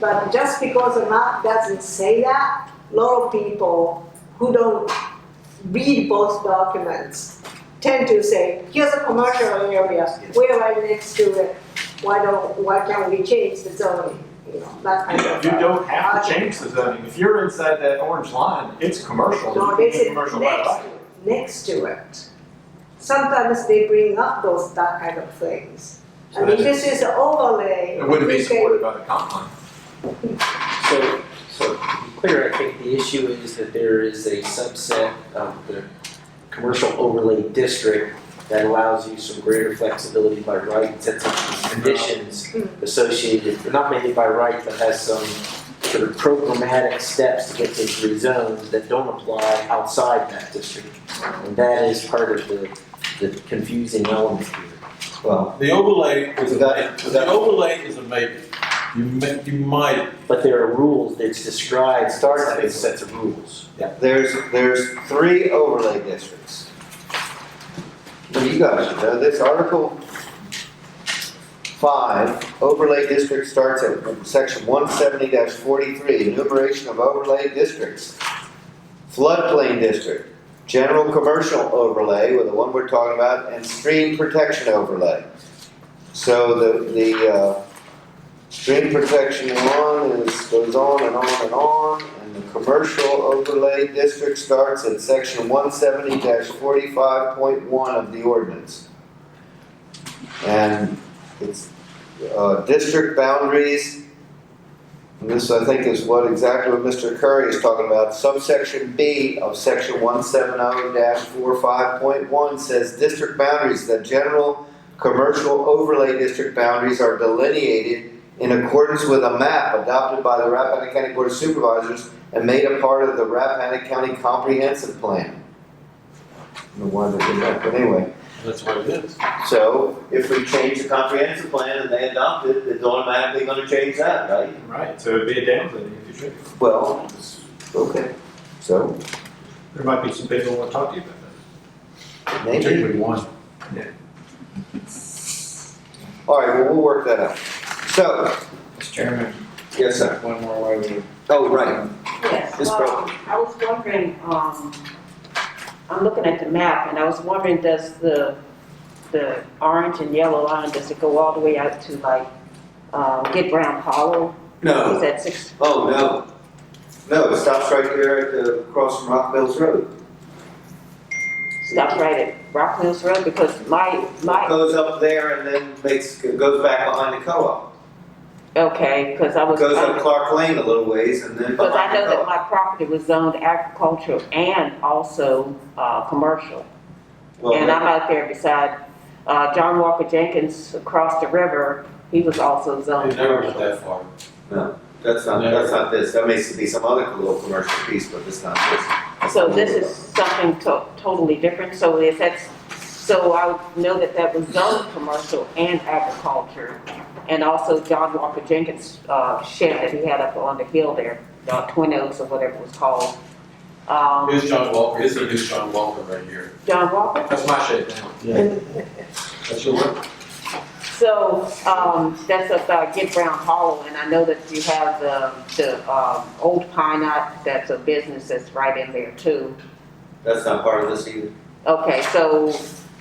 But just because a map doesn't say that, a lot of people who don't read both documents tend to say, here's a commercial area, we're right next to it, why don't, why can't we change the zoning? You know, that kind of. You don't have to change the zoning. If you're inside that orange line, it's commercial. No, they It's say next commercial by to right. it, next to it. Sometimes they bring up those, that kind of things. So And that if this is an overlay. It wouldn't we be can- supported by the comp plan. So, so to be clear, I think the issue is that there is a subset of the commercial overlay district that allows you some greater flexibility by right and sets up some conditions Mm. associated, not mainly by right, but has some sort of programmatic steps to get things rezoned that don't apply outside that district. And that is part of the, the confusing element here. Well, The overlay is a, Is that- is that- the overlay is a maybe. You may, you might, But there are rules, it's described, Starts starts with sets of rules. there's, there's three overlay districts. You guys should know this, Article five, overlay district starts at section one seventy forty-three, enumeration of overlay districts. Floodplain district, general commercial overlay, with the one we're talking about, and stream protection overlay. So the, the, uh, Stream protection one is, goes on and on and on, and the commercial overlay district starts at section one seventy forty-five point one of the ordinance. And it's, uh, district boundaries. And this, I think, is what exactly what Mr. Curry is talking about, subsection B of section one seven oh 45one says district boundaries, the general commercial overlay district boundaries are delineated in accordance with a map adopted by the Rappahannock County Board of Supervisors and made a part of the Rappahannock County Comprehensive Plan. I don't know why they did that, but anyway. that's what it is. So if we change the comprehensive plan and they adopt it, it's automatically gonna change that, right? Right, so it'd be a downgrade if you should. Well, okay, so There might be some people who want to talk to you about maybe, Particularly one. all right, well, we'll work that out. So, Mr. Chairman, yes, sir. one more way we Oh, right, Yes, This um, property. I was wondering, um, I'm looking at the map and I was wondering, does the, the orange and yellow line, does it go all the way out to like, uh, Get Brown Hollow? Is no, that six, oh, no. No, it stops right here at the, across from Rock Mills Road. stops right at Rock Mills Road? Because my, my, Goes up there and then makes, goes back behind the co-op. okay, because I was. Goes up Clark Lane a little ways and then Because I behind know the co that my property was zoned agricultural and also, uh, commercial. And I'm out there beside, uh, John Walker Jenkins across the river, he was also zoned. It never went that far. that's not, No. that's not this, that may be some other little commercial piece, but it's not this. That's So not this what is something to- totally different, so if that's, so I know that that was zoned commercial and agriculture. And also John Walker Jenkins uh, shed that he had up on the hill there, uh, Twin Oaks or whatever it was called. Um, Here's John Walker, here's the new John Walker right here. John Walker, That's my shade now. That's your one. so um, that's about Get Brown Hollow, and I know that you have the, the um, Old Pine Knot, that's a business that's right in there too. That's not part of this either. Okay, so,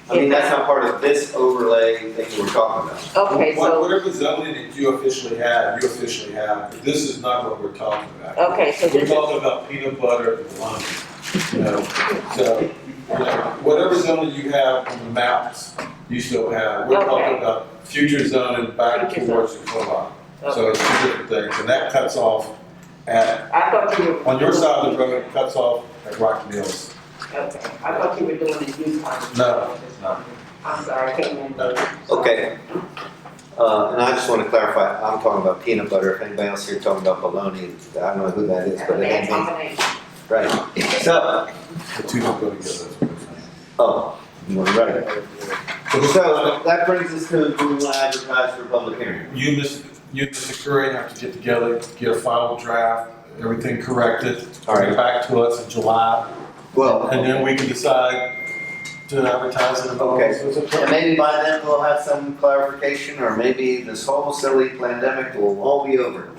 I mean, that's not part of this overlay thing we're talking about. okay, What- so, Whatever zoning that you officially have, you officially have, this is not what we're talking about. okay, so We're this is talking about peanut butter and lime, you know, so, you know, whatever zoning you have on the maps, you still have. We're Okay. talking about future zoning back Future towards the co-op. Okay. So it's two different things, and that cuts off at, I thought you were. on your side of the road, it cuts off at Rock Mills. Okay, I thought you were doing the youth conference. No, I'm sorry, I can't remember. Okay. Uh, and I just wanna clarify, I'm talking about peanut butter, if anybody else here talking about bologna, I don't know who that is, but it Bad ain't me. combination. Right, so, The two don't go together. oh, you're right. So, So, that brings us to, do we wanna advertise for public hearing? you, Miss, you, Mr. Curry, have to get together, get a final draft, everything corrected, All bring it right, back to us in July. well. And then we can decide to advertise it and all Okay. those sorts of And things. maybe by then we'll have some clarification, or maybe this whole silly pandemic will all be over.